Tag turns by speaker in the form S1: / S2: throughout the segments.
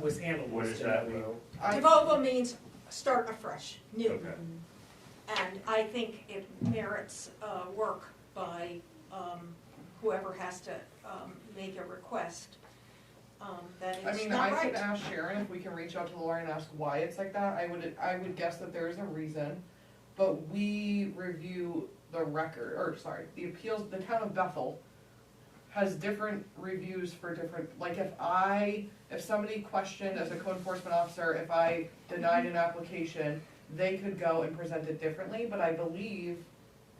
S1: was handled
S2: What
S1: was
S2: does
S1: to
S2: that
S1: no
S2: mean?
S1: vote.
S3: Devolvo means start afresh, new.
S2: Okay.
S3: And I think it merits uh, work by um, whoever has to um, make a request um, that
S4: I
S3: it's
S4: mean,
S3: not
S4: I could
S3: right.
S4: ask Sharon if we can reach out to Laura and ask why it's like that, I would, I would guess that there is a reason, but we review the record, or sorry, the appeals, the town of Bethel has different reviews for different, like if I, if somebody questioned as a code enforcement officer, if I denied an application, they could go and present it differently, but I believe,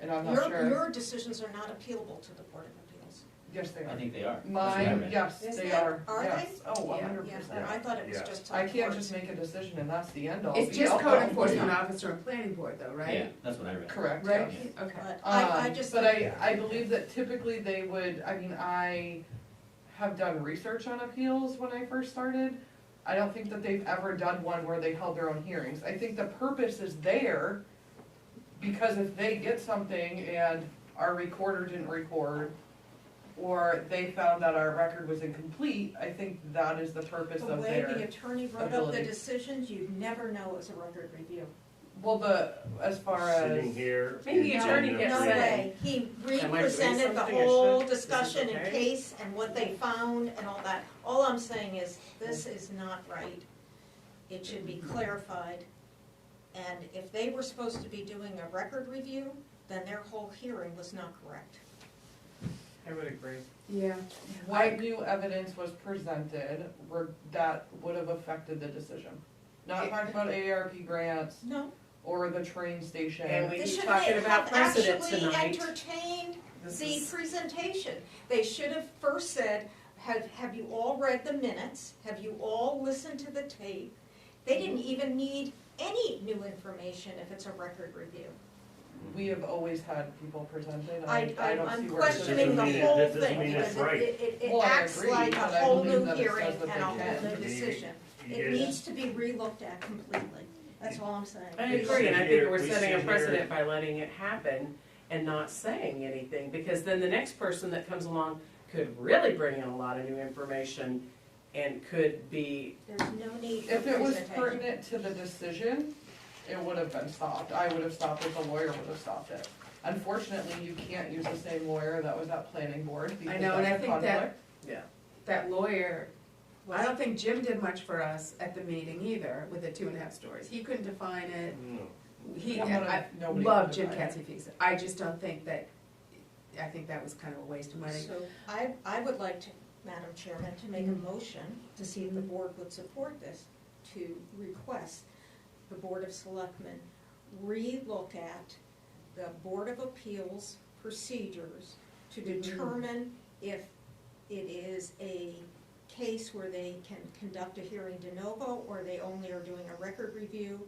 S4: and I'm not
S3: Your,
S4: sure,
S3: your decisions are not appealable to the Board of Appeals.
S4: yes, they
S5: I
S4: are.
S5: think they are.
S4: Mine, yes,
S6: Is
S4: they
S6: that-
S4: are,
S3: are they?
S4: yes, oh, one
S6: Yeah,
S4: hundred
S3: Yeah,
S4: percent.
S3: and I thought it was
S2: Yeah.
S3: just to
S4: I
S3: the
S4: can't
S3: board.
S4: just make a decision and that's the end all.
S6: It's
S4: be
S6: just
S4: all.
S6: code enforcement officer and planning board though,
S5: Yeah,
S6: right?
S5: that's what I read.
S4: Correct,
S6: Right,
S4: yes.
S6: okay.
S3: But I, I
S4: Um,
S3: just.
S4: But I, I believe that typically they would, I mean, I have done research on appeals when I first started. I don't think that they've ever done one where they held their own hearings. I think the purpose is there because if they get something and our recorder didn't record, or they found that our record was incomplete, I think that is the purpose
S3: The
S4: of
S3: way
S4: their.
S3: the attorney wrote up the
S4: ability.
S3: decisions, you'd never know it's a record review.
S4: Well, the, as far as.
S2: Sitting here.
S6: Maybe the
S2: and
S6: attorney
S2: telling
S6: gets
S3: No
S2: us-
S6: Right. it.
S3: way, he
S1: Am I doing
S3: represented the
S1: something I
S3: whole
S1: shouldn't? Is this
S3: discussion and
S1: okay?
S3: case and what they found and all that. All I'm saying is, this is not right. It should be clarified. And if they were supposed to be doing a record review, then their whole hearing was not correct.
S1: I would agree.
S6: Yeah.
S4: What new evidence was presented were- that would have affected the decision? Not talking about AARP grants
S3: No,
S4: or the train station.
S1: And we
S3: they
S1: keep
S3: should
S1: talking about
S3: have
S1: precedent
S3: actually
S1: tonight.
S3: entertained
S1: This
S3: the
S1: is,
S3: presentation. They should have first said, have, have you all read the minutes? Have you all listened to the tape? They didn't
S4: Mm-hmm.
S3: even need any new information if it's a record review.
S4: We have always had people presented, I, I
S3: I, I'm
S4: don't see
S3: I'm
S4: where. it's-
S3: questioning the
S2: Doesn't mean it-
S3: whole
S2: that doesn't
S3: thing
S2: mean it's
S3: because it-
S2: right.
S3: it, it, it
S4: Well, I
S3: acts
S4: agree,
S3: like a
S4: but I
S3: whole
S4: believe
S3: new
S4: that it says
S3: hearing
S4: what they
S3: and a
S4: can.
S3: whole new
S2: You-
S3: decision. It
S2: you-
S3: needs to be relooked at completely. That's all I'm saying.
S1: I
S2: We
S1: agree, and I
S2: sit
S1: think
S2: here-
S1: we're
S2: we
S1: setting a
S2: sit here-
S1: precedent by letting it happen and not saying anything, because then the next person that comes along could really bring in a lot of new information and could be,
S3: There's no need for
S4: If it was
S3: presentation.
S4: pertinent to the decision, it would have been stopped, I would have stopped it, the lawyer would have stopped it. Unfortunately, you can't use the same lawyer that was at planning board because
S6: know, and I
S4: that's a
S6: think that-
S4: conflict.
S6: That lawyer, I don't think Jim did much for us at the meeting either with the two and a half stories. He couldn't define it.
S2: No.
S6: He,
S4: Nobody-
S6: I
S4: nobody
S6: love
S4: could
S6: Jim
S4: define it.
S6: Katsifides. I just don't think that, I think that was kind of a waste of money.
S3: So I, I would like to, Madam Chairman, to make a
S6: Mm-hmm.
S3: motion to see if the board would support this, to request the Board of Selectmen relook at the Board of Appeals procedures to
S6: Mm-hmm.
S3: determine if it is a case where they can conduct a hearing de novo or they only are doing a record review.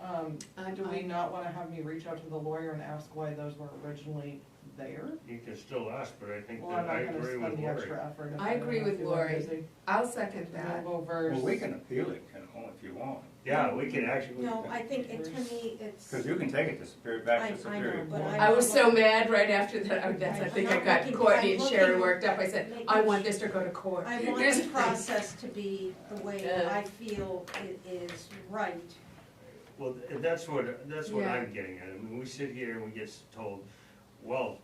S4: Um,
S6: I'm-
S4: do we
S6: I'm-
S4: not wanna have me reach out to the lawyer and ask why those were originally there?
S2: You can still ask, but I think
S4: Well, I'm
S2: that I
S4: not gonna
S2: agree with
S4: spend the
S2: Lori.
S4: extra effort. if
S6: I
S4: I'm
S6: agree
S4: gonna
S6: with
S4: feel like
S6: Lori.
S4: busy.
S6: I'll second that.
S4: Novo
S7: Well,
S4: versus-
S7: we can appeal it, you know, if you want,
S2: Yeah, we can actually.
S3: No, I think it, to me, it's,
S7: because you can take it to Superior,
S3: I-
S7: back
S3: I
S7: to Superior
S3: know, but
S7: Court.
S3: I-
S6: I was so mad right after that, I- that's, I think I got Courtney and Sharon worked up, I said, I want this to go to court.
S3: I want
S6: Here's
S3: the
S6: the thing.
S3: process to be the way that I feel it is right.
S2: Well, th- that's what, that's what
S6: Yeah.
S2: I'm getting at. I mean, we sit here and we get s- told, well,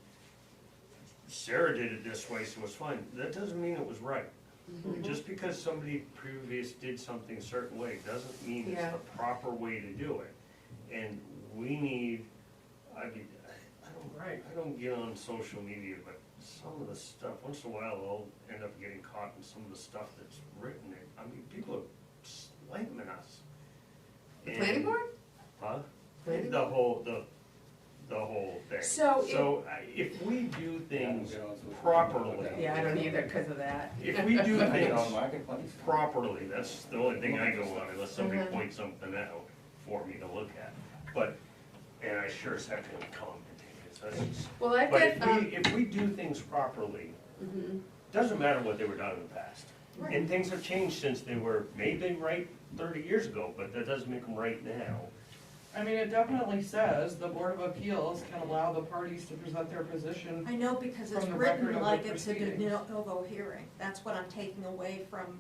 S2: Sarah did it this way, so it's fine. That doesn't mean it was right.
S3: Mm-hmm.
S2: Just because somebody previous did something a certain way, doesn't mean it's
S6: Yeah.
S2: the proper way to do it. And we need, I mean, I I
S1: Right.
S2: don't, I don't get on social media, but some of the stuff, once in a while, I'll end up getting caught in some of the stuff that's written. there. I mean, people are slamming us.
S6: Planning
S2: And-
S6: board?
S2: Huh? The whole, the, the whole thing.
S6: So
S2: So I- if we do things
S7: Yeah, I'll get on to it.
S2: properly.
S6: Yeah, I don't either because of that.
S2: If we do
S7: I get
S2: things
S7: on Marketplace.
S2: properly, that's the only thing I go on, unless somebody
S6: Uh-huh.
S2: points something out for me to look at. But, and I sure as heck don't comment, because that's just.
S6: Well, I've
S2: But
S6: got,
S2: if
S6: um,
S2: we, if we do things properly,
S6: mhm.
S2: doesn't matter what they were done in the past. And things have changed since they were, maybe right thirty years ago, but that doesn't make them right now.
S4: I mean, it definitely says the Board of Appeals can allow the parties to present their position.
S3: I know because it's
S4: From the record
S3: written
S4: of
S3: like
S4: the
S3: it's a de
S4: proceedings.
S3: novo hearing. That's what I'm taking away from